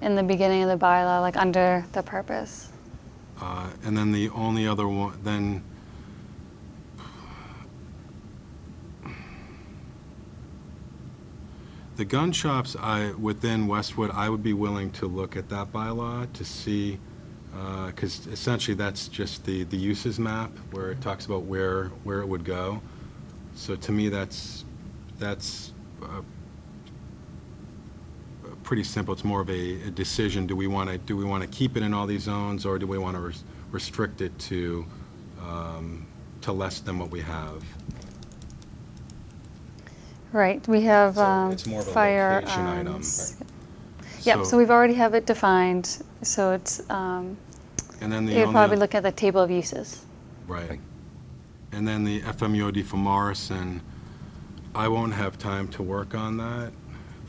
in the beginning of the bylaw, like under the purpose. Uh, And then the only other one, then, the gun shops, I, within Westwood, I would be willing to look at that bylaw to see, because essentially that's just the, the uses map, where it talks about where, where it would go. So to me, that's, that's uh, pretty simple. It's more of a, a decision. Do we want to, do we want to keep it in all these zones, or do we want to restrict it to, um, to less than what we have? Right, we have So um, it's more of a location item. firearms. Yep, so So- we've already have it defined, so it's, um, And then the you'd probably only, look at the table of uses. right. And then the FMUOD for Morrison, I won't have time to work on that.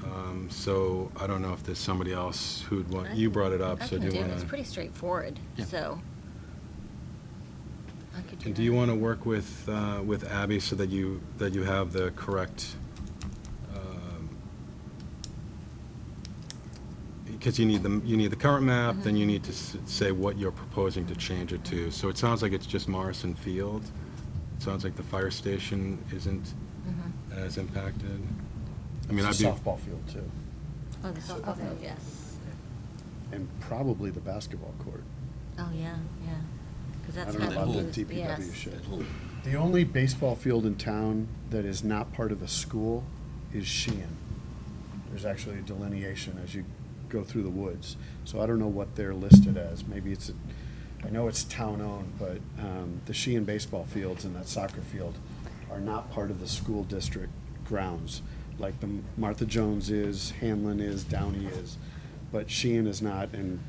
Um, So I don't know if there's somebody else who'd want, you brought it up, I so can do do, you it. want it's to? pretty straightforward, Yeah. so. I could And do do you that. want to work with, uh, with Abby so that you, that you have the correct, um, because you need the, you need the current map, then you need to s- say what you're proposing to change it to. So it sounds like it's just Morrison Field. It Sounds like the fire station isn't as impacted. I mean, I'd It's be, a softball field too, Oh, the softball field, yes. and probably the basketball court. Oh, yeah, yeah. Because I that's don't know got about the to do with, DPW yes. shit. The only baseball field in town that is not part of the school is Sheehan. There's actually a delineation as you go through the woods, so I don't know what they're listed as. Maybe it's, a- I know it's town-owned, but um, the Sheehan baseball fields and that soccer field are not part of the school district grounds, like the Martha Jones is, Hanlon is, Downey is, but Sheehan is not, and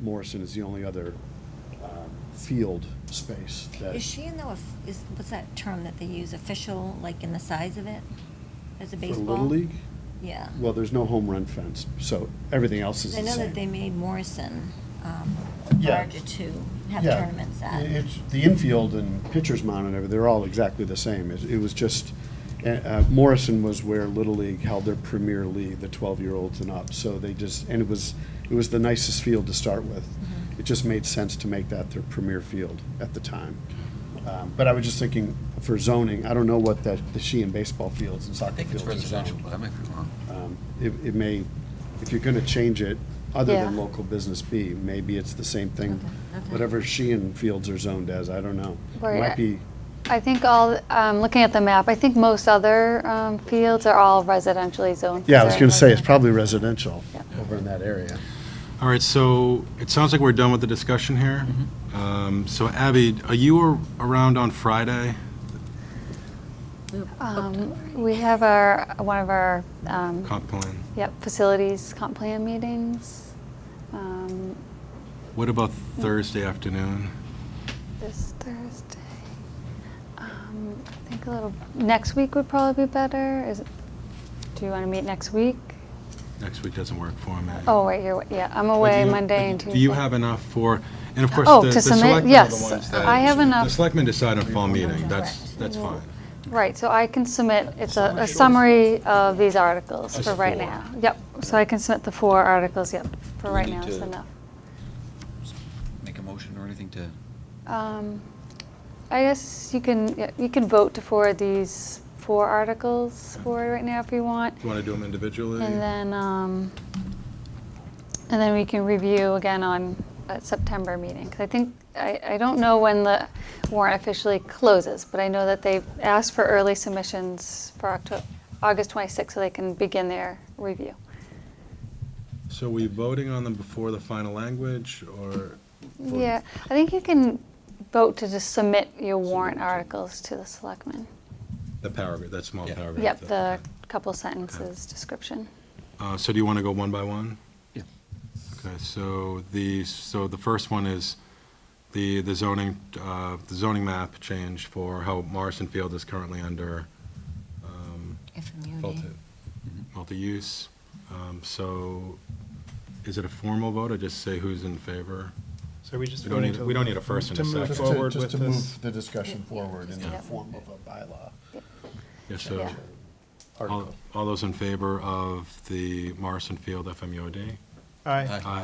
Morrison is the only other um, field space that. Is she in the, of- is, what's that term that they use, official, like in the size of it? As a For baseball? Little League? Yeah. Well, there's no home run fence, so everything else is I the know that they same. made Morrison um, Yeah. larger to have Yeah. tournaments at. It- It's, the infield and pitcher's mound and everything, they're all exactly the same. It it was just, uh, uh, Morrison was where Little League held their premier league, the twelve-year-olds and up. So they just, and it was, it was the nicest field to start with. Mm-hmm. It just made sense to make that their premier field at the time. Um, But I was just thinking, for zoning, I don't know what that, the Sheehan baseball fields and I soccer think it's fields are residential, zoned. but I might be wrong. Um, It, it may, if you're gonna change it, other than Yeah. local business B, maybe it's the same thing. Okay, okay. Whatever Sheehan Fields are zoned as, I don't know. It Right. Might be, I think all, um, looking at the map, I think most other um, fields are all residentially zoned. yeah, I was gonna say, it's Residential. probably residential Yeah. over in that area. all right, so it sounds like we're done with the discussion here. Mm-hmm. Um, So Abby, are you ar- around on Friday? Um, We have our, one of our, um, Comp plan. yep, facilities comp plan meetings um, What about Thursday afternoon? this Thursday. Um, I think a little, next week would probably be better. Is, it- do you want to meet next week? Next week doesn't work for me. Oh, wait, you're, yeah, I'm But do away you- Monday and but Tuesday. Do you have enough for, and of course, Oh, the to the submit? selectmen are the Yes, ones that- I have enough. The selectmen decide on fall meeting, that's, Correct. that's fine. Right, so I can submit, it's a, a Summary. summary of these articles Us for right four. now. Yep, so I can submit the four articles, yep, for Do we right need now, it's to- enough. Make a motion or anything to, Um, I guess you can, yeah, you can vote to forward these four articles forward right now if you want. Do you want to do them individually? And then, um, and then we can review again on uh, September meeting. 'Cause I think, I, I don't know when the warrant officially closes, but I know that they've asked for early submissions for Octo, August 26th, so they can begin their review. So are we voting on them before the final language, or? Yeah, I think you can vote to just submit your warrant articles to the selectmen. The paragraph, that small Yeah. paragraph? Yep, the that- couple sentences description. Uh, So do you want to go one by one? Yeah. Okay, so the, so the first one is the the zoning, uh, the zoning map change for how Morrison Field is currently under um, FMUD. multi, Mm-hmm. multi-use. Um, So, is it a formal vote, or just say who's in favor? So we just We don't voting need, to. we don't need a first and a to move second. Just to, Forward just with to this. move the discussion forward in the Yeah. form of a bylaw Yeah, so, Yeah. all, article. all those in favor of the Morrison Field FMUOD? Aye. Aye.